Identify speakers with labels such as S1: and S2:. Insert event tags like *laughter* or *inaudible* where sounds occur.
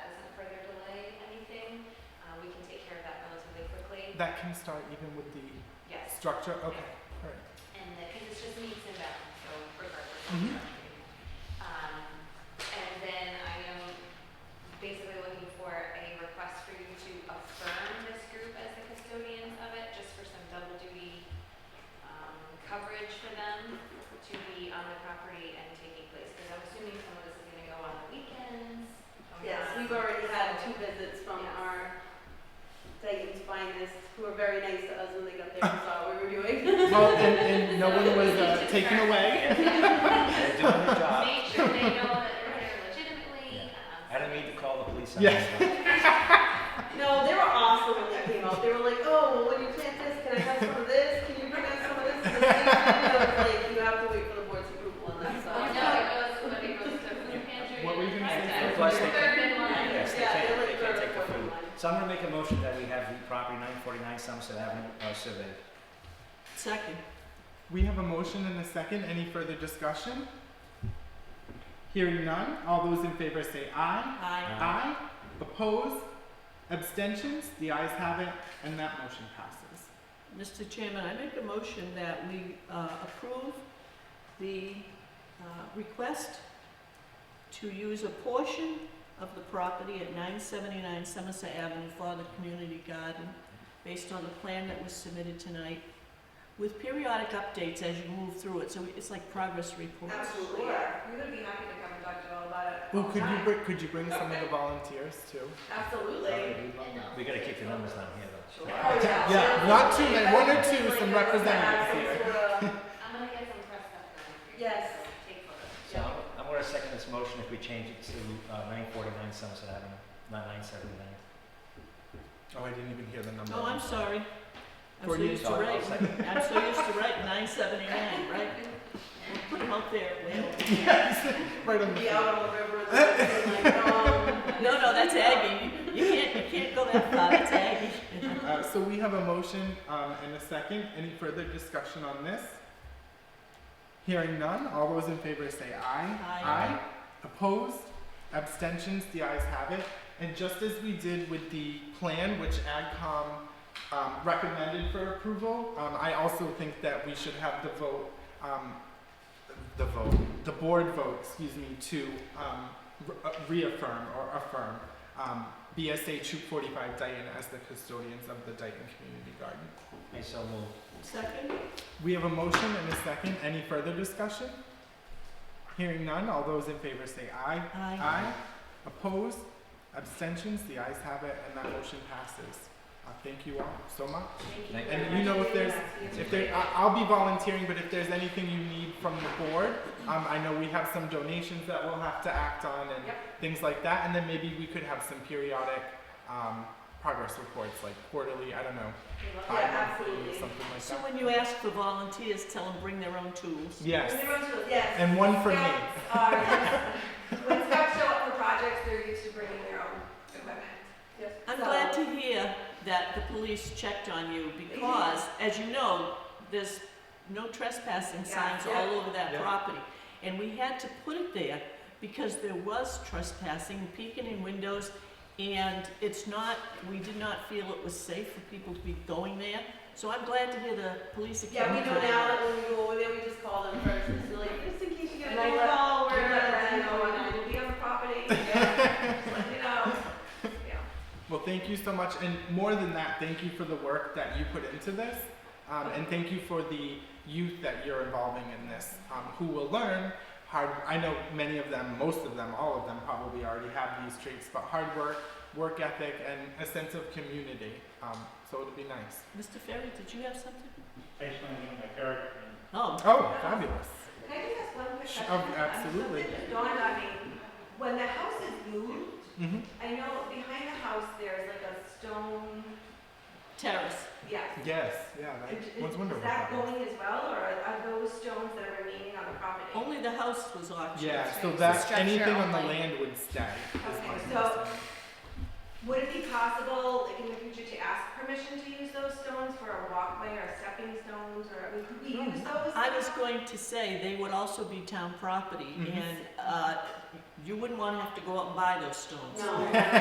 S1: uh,
S2: that can start even with the
S1: Yes,
S2: structure, okay, all right.
S1: and because it's just meets and bounds, so regardless of
S2: Mhm.
S1: country. Um, and then I am basically looking for a request for you to affirm this group as the custodians of it, just for some double duty, um, coverage for them to be on the property and taking place, because I'm assuming some of this is gonna go on the weekends. Um, or not.
S3: Yes, we've already had two visits from
S1: Yes.
S3: our Dayton's finest, who were very nice to us when they got there and saw what we
S2: *laughs*
S3: were doing.
S2: Well, and, and no one was uh,
S1: Just
S2: taken
S1: correct.
S2: away.
S4: They're doing their job.
S1: Make sure they know that they're there legitimately. um,
S4: I didn't mean to call the police on
S2: Yeah.
S4: them.
S3: No, they were awesome when they came out. They were like, oh, well, when you plant this, can I have some of this? Can you bring us some of this? And I was like, you have to wait for the board's approval on that, so.
S1: Oh, no, it goes, when it goes to food pantry.
S2: What were you gonna say?
S1: Right,
S4: Plus they-
S1: Third in line.
S4: Yes, they
S3: Yeah,
S4: can't,
S3: they're like
S4: they can't
S3: third
S4: take the
S3: or fourth
S4: food.
S3: line.
S4: So I'm gonna make a motion that we have the property nine forty-nine Somerset Avenue, uh, surveyed.
S5: Second.
S2: We have a motion and a second, any further discussion? Hearing none, all those in favor say aye.
S5: Aye.
S2: Aye, opposed, abstentions, the ayes have it, and that motion passes.
S5: Mr. Chairman, I make a motion that we uh, approve the uh, request to use a portion of the property at 979 Somerset Avenue for the community garden, based on the plan that was submitted tonight, with periodic updates as you move through it, so it's like progress reports.
S3: Absolutely, yeah. We would be happy to come and talk to you all about it.
S2: Ooh,
S3: all the
S2: could you
S3: time.
S2: bring, could you bring some of the volunteers too?
S3: Absolutely.
S4: We gotta keep the numbers down here though.
S3: Oh, yeah.
S2: Yeah,
S3: Sure.
S2: not too many, one or two,
S3: Like,
S2: some
S3: we're gonna
S2: representatives
S3: have
S2: here.
S3: some sort of-
S1: I'm gonna get some press stuff done.
S3: Yes.
S1: Take photos.
S4: So I'm- I'm gonna second this motion if we change it to, uh, nine forty-nine Somerset Avenue, not nine seventy-nine.
S2: Oh, I didn't even hear the number. *laughs*
S5: Oh, I'm sorry. I'm so
S2: For you,
S5: used to
S4: sorry, I'll
S5: writing,
S4: second.
S5: I'm so used to writing 979, right? Put them out there, Will.
S2: Yes, right on the.
S3: be out on the river with the like, um,
S5: *laughs* No, no, that's Aggie. You can't, you can't go that far. That's Aggie.
S2: Uh, so we have a motion um, and a second. Any further discussion on this? Hearing none, all those in favor say aye.
S5: Aye.
S2: Opposed? Abstentions? The ayes have it. And just as we did with the plan, which AdCom um, recommended for approval, um, I also think that we should have the vote, um, the vote, the board vote, excuse me, to um, re- uh, reaffirm or affirm um, BSA 245 Dayton as the custodians of the Dayton Community Garden.
S4: Okay, so move.
S5: Second?
S2: We have a motion and a second. Any further discussion? Hearing none, all those in favor say aye.
S5: Aye.
S2: Aye. Opposed? Abstentions? The ayes have it, and that motion passes. Uh, thank you all so much.
S1: Thank you.
S4: And
S1: very
S2: you
S1: much.
S2: know if there's-
S1: Yes,
S2: If there, I- I'll be volunteering, but if there's anything you need from the board, um, I know we have some donations that we'll have to act on and things like that, and then maybe we could have some periodic um, progress reports, like quarterly. I don't know,
S1: we love
S3: Yeah,
S2: bi-monthly
S3: absolutely.
S2: or something like
S5: So
S2: that.
S5: when you ask for volunteers, tell them bring their own tools.
S2: Yes,
S3: when they run to- yes.
S2: and one for me.
S3: Scouts are- yes.
S5: *laughs*
S3: When scouts show up for projects, they're used to bringing their own equipment.
S5: I'm
S3: So-
S5: glad to hear that the police checked on you because, as you know, there's no trespassing
S3: Yeah,
S5: signs
S3: yeah.
S5: all over that
S2: Yeah.
S5: property. And we had to put it there because there was trespassing, peeking in windows, and it's not, we did not feel it was safe for people to be going there. So I'm glad to hear the police.
S3: Yeah, we
S5: accountability.
S3: know now that when we go over there, we just call them first, and so like, just in case you get a
S1: And I
S3: phone
S1: let-
S3: call,
S1: we
S3: we're
S1: let
S3: gonna,
S1: them
S3: you know,
S1: know.
S3: and we'll be on the property, yeah, just let you know, yeah.
S2: Well, thank you so much, and more than that, thank you for the work that you put into this, um, and thank you for the youth that you're involving in this, um, who will learn hard. I know many of them, most of them, all of them probably already have these traits, but hard work, work ethic, and a sense of community. Um, so it'll be nice.
S5: Mr. Ferry, did you have something?
S6: based on my character. and
S5: Oh,
S2: Oh, fabulous!
S3: Can I just ask one quick
S2: Sure,
S3: question?
S2: absolutely.
S3: Something that dawned on me, when the house is moved,
S2: hmm
S3: I know behind the house there's like a stone,
S5: terrace.
S3: yeah.
S2: Yes, yeah.
S3: Is
S2: That, one's
S3: is
S2: wonderful.
S3: that going as well, or are- are those stones that are remaining on the property?
S5: Only the house was auctioned.
S2: Yeah. So
S1: It's
S2: that
S1: structure
S2: anything on the
S1: only.
S2: land would stay. is
S3: Okay,
S2: my
S3: so-
S2: understanding.
S3: Would it be possible, like in the future, to ask permission to use those stones for a walkway or stepping stones, or, I mean, could we use those?
S5: I was going to say, they would also be town property,
S2: Mhm.
S5: and uh, you wouldn't want to have to go out and buy those stones.
S3: No.